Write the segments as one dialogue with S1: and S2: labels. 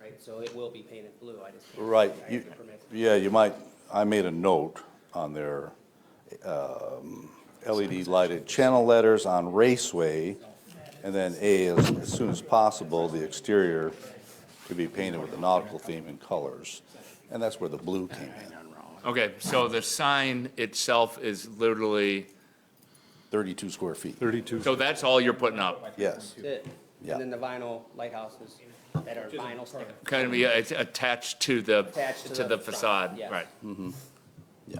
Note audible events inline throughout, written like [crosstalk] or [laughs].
S1: painted, so it will be painted blue, I just. can't-
S2: Right,
S1: I have
S2: you,
S1: the permits.
S2: yeah, you might, I made a note on their, um, LED lighted channel letters on Raceway, and then A, as, as soon as possible, the exterior to be painted with a nautical theme and colors, and that's where the blue came in,
S3: Okay, so the sign itself is literally,
S2: thirty-two square feet,
S4: 32.
S3: so that's all you're putting up?
S2: yes,
S1: That's it.
S2: Yeah.
S1: And then the vinyl lighthouses that are vinyl stick
S3: Kind of be uh, it's attached to the,
S1: Attached to
S3: to
S1: the
S3: the
S1: front,
S3: facade,
S1: yes.
S3: right?
S2: yeah.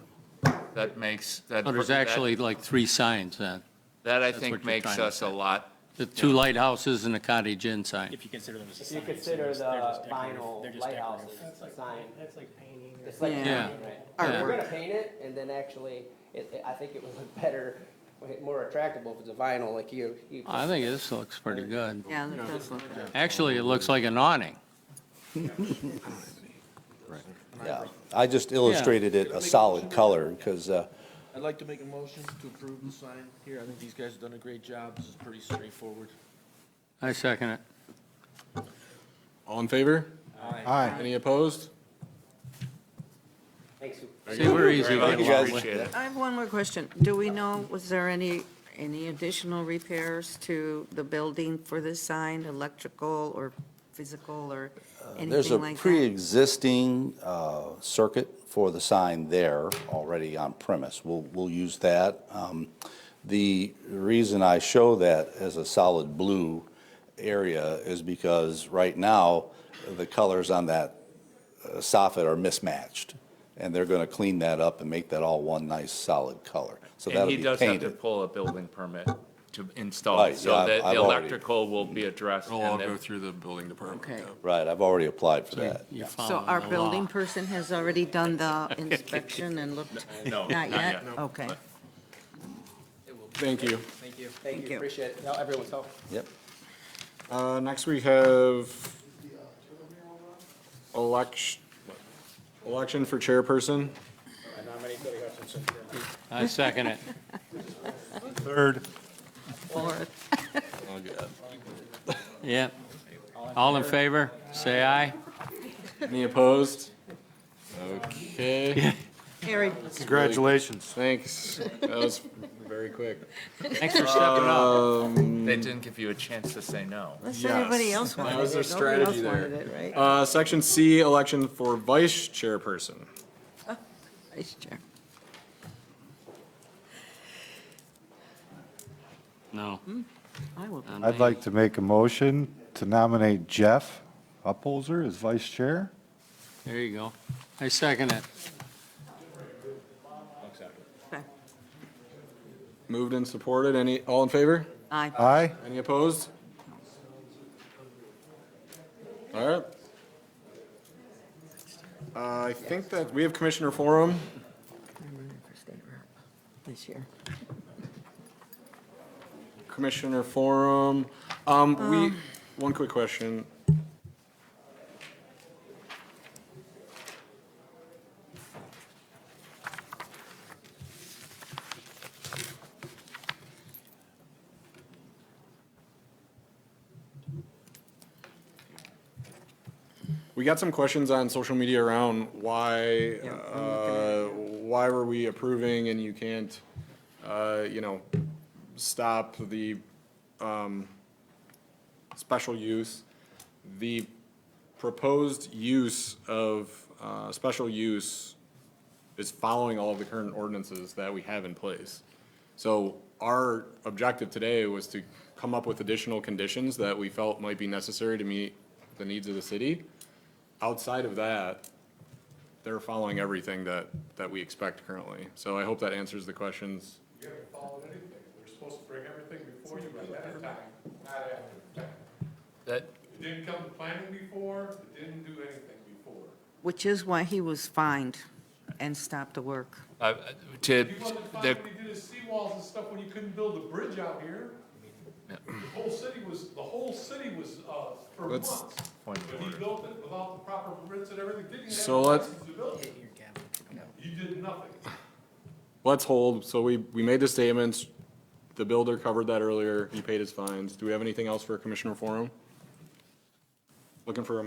S3: That makes, that.
S5: Oh, There's
S3: that-
S5: actually like three signs then.
S3: That I
S5: that's what
S3: think
S5: you're
S3: makes
S5: trying to
S3: us a
S5: say.
S3: lot,
S5: The two lighthouses and the cottage inn sign.
S6: If you consider them as a
S1: If you
S6: sign.
S1: consider the vinyl
S6: lighthouse.
S1: lighthouses sign,
S7: That's like painting or.
S1: it's like
S5: Yeah.
S1: painting, right?
S5: Yeah.
S1: We're gonna paint it, and then actually, it, it- I think it would look better, more attractable if it's a vinyl, like you, you.
S5: I think this looks pretty good.
S8: Yeah, that does look good.
S5: Actually, it looks like an awning.
S2: Yeah, I just illustrated it a solid color, because, uh,
S9: I'd like to make a motion to approve the sign here. I think these guys have done a great job. This is pretty straightforward.
S5: I second it.
S4: All in favor?
S8: Aye.
S4: Any opposed?
S1: Thanks.
S5: See, we're easy.
S3: very
S5: to
S3: much
S5: get along with.
S3: appreciated.
S8: I have one more question. Do we know, was there any, any additional repairs to the building for this sign, electrical or physical or
S2: There's a
S8: anything like that?
S2: pre-existing uh, circuit for the sign there already on premise. We'll, we'll use that. Um, The reason I show that as a solid blue area is because right now, the colors on that uh, soffit are mismatched, and they're going to clean that up and make that all one nice solid color. So
S3: and
S2: that'll
S3: he
S2: be
S3: does have to
S2: painted.
S3: pull a building permit to install,
S2: Right,
S3: so
S2: yeah, I've-
S3: that the
S2: I've already-
S3: electrical will be addressed.
S4: It'll all
S3: and
S4: go
S3: then-
S4: through the building department.
S8: Okay.
S4: yeah.
S2: Right, I've already applied for that.
S5: You're
S8: So
S5: uh, following
S8: our
S5: the law.
S8: building person has already done the inspection and looked?
S3: [laughs] No,
S8: Not yet?
S3: yet.
S8: Okay.
S4: Thank you.
S1: Thank you.
S8: Thank
S1: Thank you,
S8: you.
S1: appreciate it, Now everyone's help.
S2: Yep.
S4: Uh, Next, we have election, election for chairperson.
S5: I second
S8: [laughs]
S5: it.
S8: Or-
S5: Yep. All in favor, say aye.
S4: Any opposed? Okay,
S8: Harry,
S4: Congratulations. thanks. That was very quick.
S5: Thanks for stepping up.
S3: They didn't give you a chance to say no.
S8: unless anybody
S4: Yes.
S8: else wanted it.
S4: That was their
S8: Nobody else
S4: strategy
S8: wanted
S4: there.
S8: it, right?
S4: Uh, Section C, election for vice chairperson.
S8: Vice Chair.
S5: No.
S8: I will.
S7: I'd like to make a motion to nominate Jeff Upholzer as vice chair.
S5: There you go. I second it.
S4: Moved and supported. Any, all in favor?
S8: Aye.
S7: Aye?
S4: Any opposed? All right. Uh, I think that, we have Commissioner Forum.
S8: I'm running for state rep this year.
S4: Commissioner Forum. Um, we, one quick question. We got some questions on social media around why,
S8: Yeah, I'm looking
S4: uh, why were we approving and you can't, uh, you know, stop the, um, special use. The proposed use of, uh, special use is following all of the current ordinances that we have in place. So our objective today was to come up with additional conditions that we felt might be necessary to meet the needs of the city. Outside of that, they're following everything that, that we expect currently. So I hope that answers the questions
S10: You haven't followed anything. You're supposed to bring everything before you at that time, not after the fact.
S3: That,
S10: It didn't come to planning before, it didn't do anything before.
S8: Which is why he was fined and stopped the work.
S3: uh, to,
S10: You wasn't fine
S3: the,
S10: when you did the seawalls and stuff when you couldn't build a bridge out here. The whole city was, the whole city was, uh, for
S4: Let's-
S10: months. But he built it without the proper permits and everything, didn't have
S4: So
S10: the
S4: let's-
S10: license to build it. You did nothing.
S4: Let's hold, so we, we made the statements, the builder covered that earlier, he paid his fines. Do we have anything else for Commissioner Forum? Looking for a